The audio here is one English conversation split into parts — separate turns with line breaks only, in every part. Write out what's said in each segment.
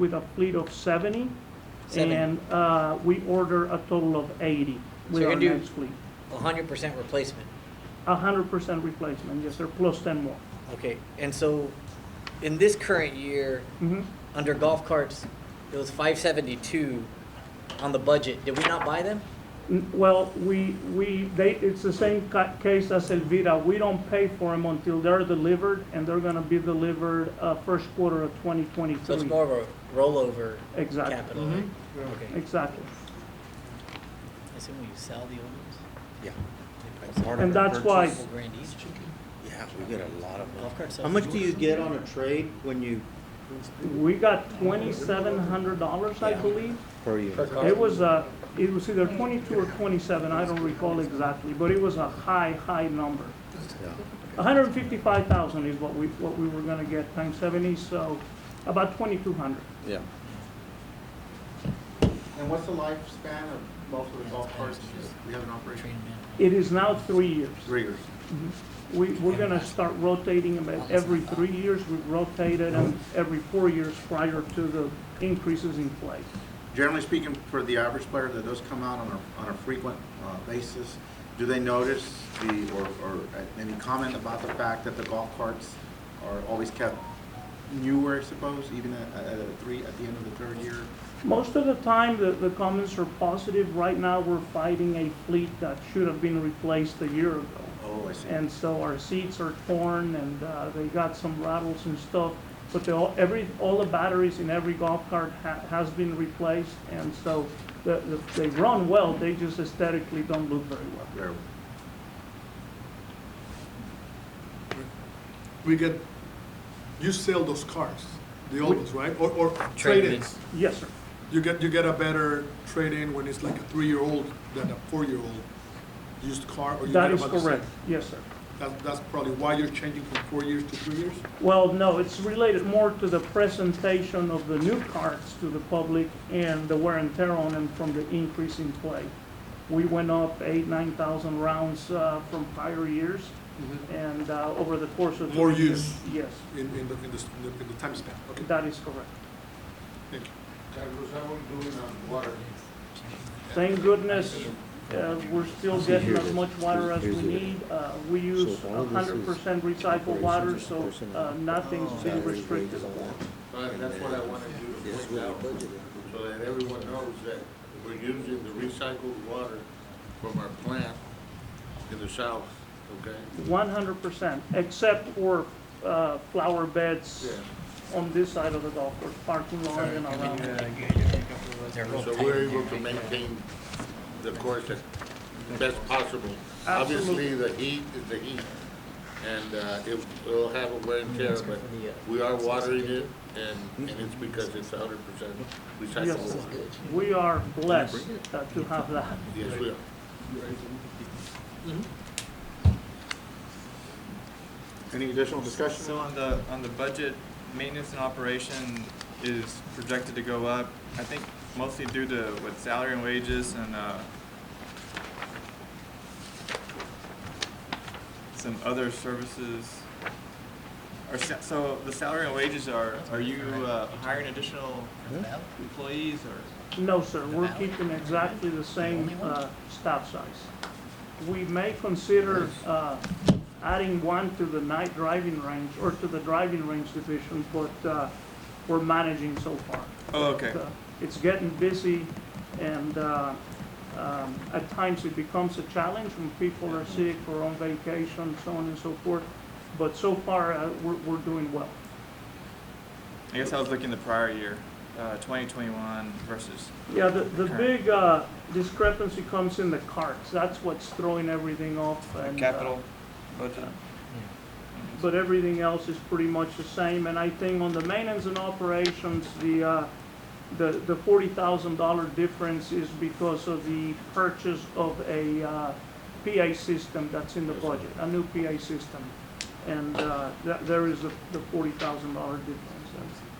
with a fleet of 70.
70.
And uh, we order a total of 80 with
you're
our
gonna do-
next fleet.
hundred percent replacement.
100% replacement, yes, sir, plus 10 more.
Okay, and so in this current year,
Mhm.
under golf carts, it was five seventy-two on the budget. Did we not buy them?
N- Well, we, we, they, it's the same ca- case as Elvira. We don't pay for them until they're delivered, and they're gonna be delivered uh, first quarter of 2023.
So it's more of a rollover
Exactly.
capital, right? Okay.
Exactly.
I assume you sell the old
Yeah.
ones?
And that's why,
Couple grand each?
Yeah, we get a lot of them.
Golf cart
How
sells
much
for
do you get on a trade when you,
we got $2,700, I believe.
Per
Per
unit.
car?
It was, uh, it was either 22 or 27, I don't recall exactly, but it was a high, high number.
Yeah.
155,000 is what we, what we were gonna get, times 70, so about 2,200.
Yeah.
And what's the lifespan of most of the golf carts we have in operation?
Train them
It is now three years.
Three years.
We, we're gonna start rotating them at every three years, we rotated them every four years prior to the increases in place.
Generally speaking, for the average player that does come out on a, on a frequent uh, basis, do they notice the, or, or uh, any comment about the fact that the golf carts are always kept newer, I suppose, even at, at a three, at the end of the third year?
Most of the time, the, the comments are positive. Right now, we're fighting a fleet that should have been replaced a year ago.
Oh, I see.
And so our seats are torn and uh, they got some rattles and stuff. But they all, every, all the batteries in every golf cart ha- has been replaced. And so the, the, they run well, they just aesthetically don't look very well.
Very-
we get, you sell those cars, the old ones, right? Or, or
Trade-ins.
trade-ins.
Yes, sir.
You get, you get a better trade-in when it's like a three-year-old than a four-year-old used car, or you
That
get
is
about the same.
correct. Yes, sir.
That, that's probably why you're changing from four years to three years?
Well, no, it's related more to the presentation of the new carts to the public and the wear and tear on them from the increase in play. We went up eight, nine thousand rounds uh, from prior years and uh, over the course of.
More
three
use.
years. Yes,
In, in the, in the, in the- in the time span, okay,
that is correct.
thank you.
Thank goodness, uh, we're still
See,
getting
here
as
it
much
is.
water as
Here's
we
the-
need. Uh, We use
So all this
hundred
is
percent recycled water,
operations and
so
personnel.
uh, nothing's been
Salaries,
restricted.
wages, all that.
That's what I wanted you to
That's
point out,
what we budgeted.
so that everyone knows that we're using the recycled water from our plant in the south, okay?
One hundred percent, except for uh, flower beds on this side of the golf course, parking lot and around.
uh,
in. They're real
So
tight
we're
in
able
there,
to
right?
maintain the course as best possible. Obviously, the heat is the heat, and uh, it will have a wear and tear, but we are watering it, and, and it's because it's hundred percent
Yes.
recyclable. water.
We are blessed uh, to have that.
Yes, we are.
Mm-hmm.
Any additional discussion?
So on the, on the budget, maintenance and operation is projected to go up, I think mostly due to what salary and wages and, uh, some other services. Are, sa- so the salary and wages are, are you, uh, hiring additional employees or?
No, sir, we're keeping exactly the same uh, staff size. We may consider uh, adding one to the night driving range or to the driving range division, but uh, we're managing so far.
Oh, okay.
Uh, It's getting busy and uh, um, at times it becomes a challenge when people are sick or on vacation, so on and so forth. But so far, uh, we're, we're doing well.
I guess I was looking the prior year, uh, twenty twenty-one versus,
Yeah, the, the big uh, discrepancy comes in the carts. That's what's throwing everything off.
uh,
and, uh,
capital budget.
But everything else is pretty much the same. And I think on the maintenance and operations, the, uh, the, the forty thousand dollar difference is because of the purchase of a, uh, PA system that's in the budget, a new PA system. And, uh, that, there is the, the forty thousand dollar difference.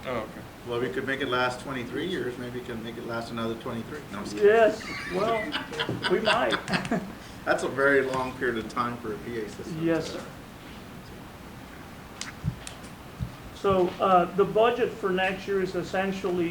Oh, okay.
Well, we could make it last twenty-three years, maybe we can make it last another twenty-three. No, I'm just kidding.
Yes, well, we might.
That's a very long period of time for a PA system.
Yes, sir. So, uh, the budget for next year is essentially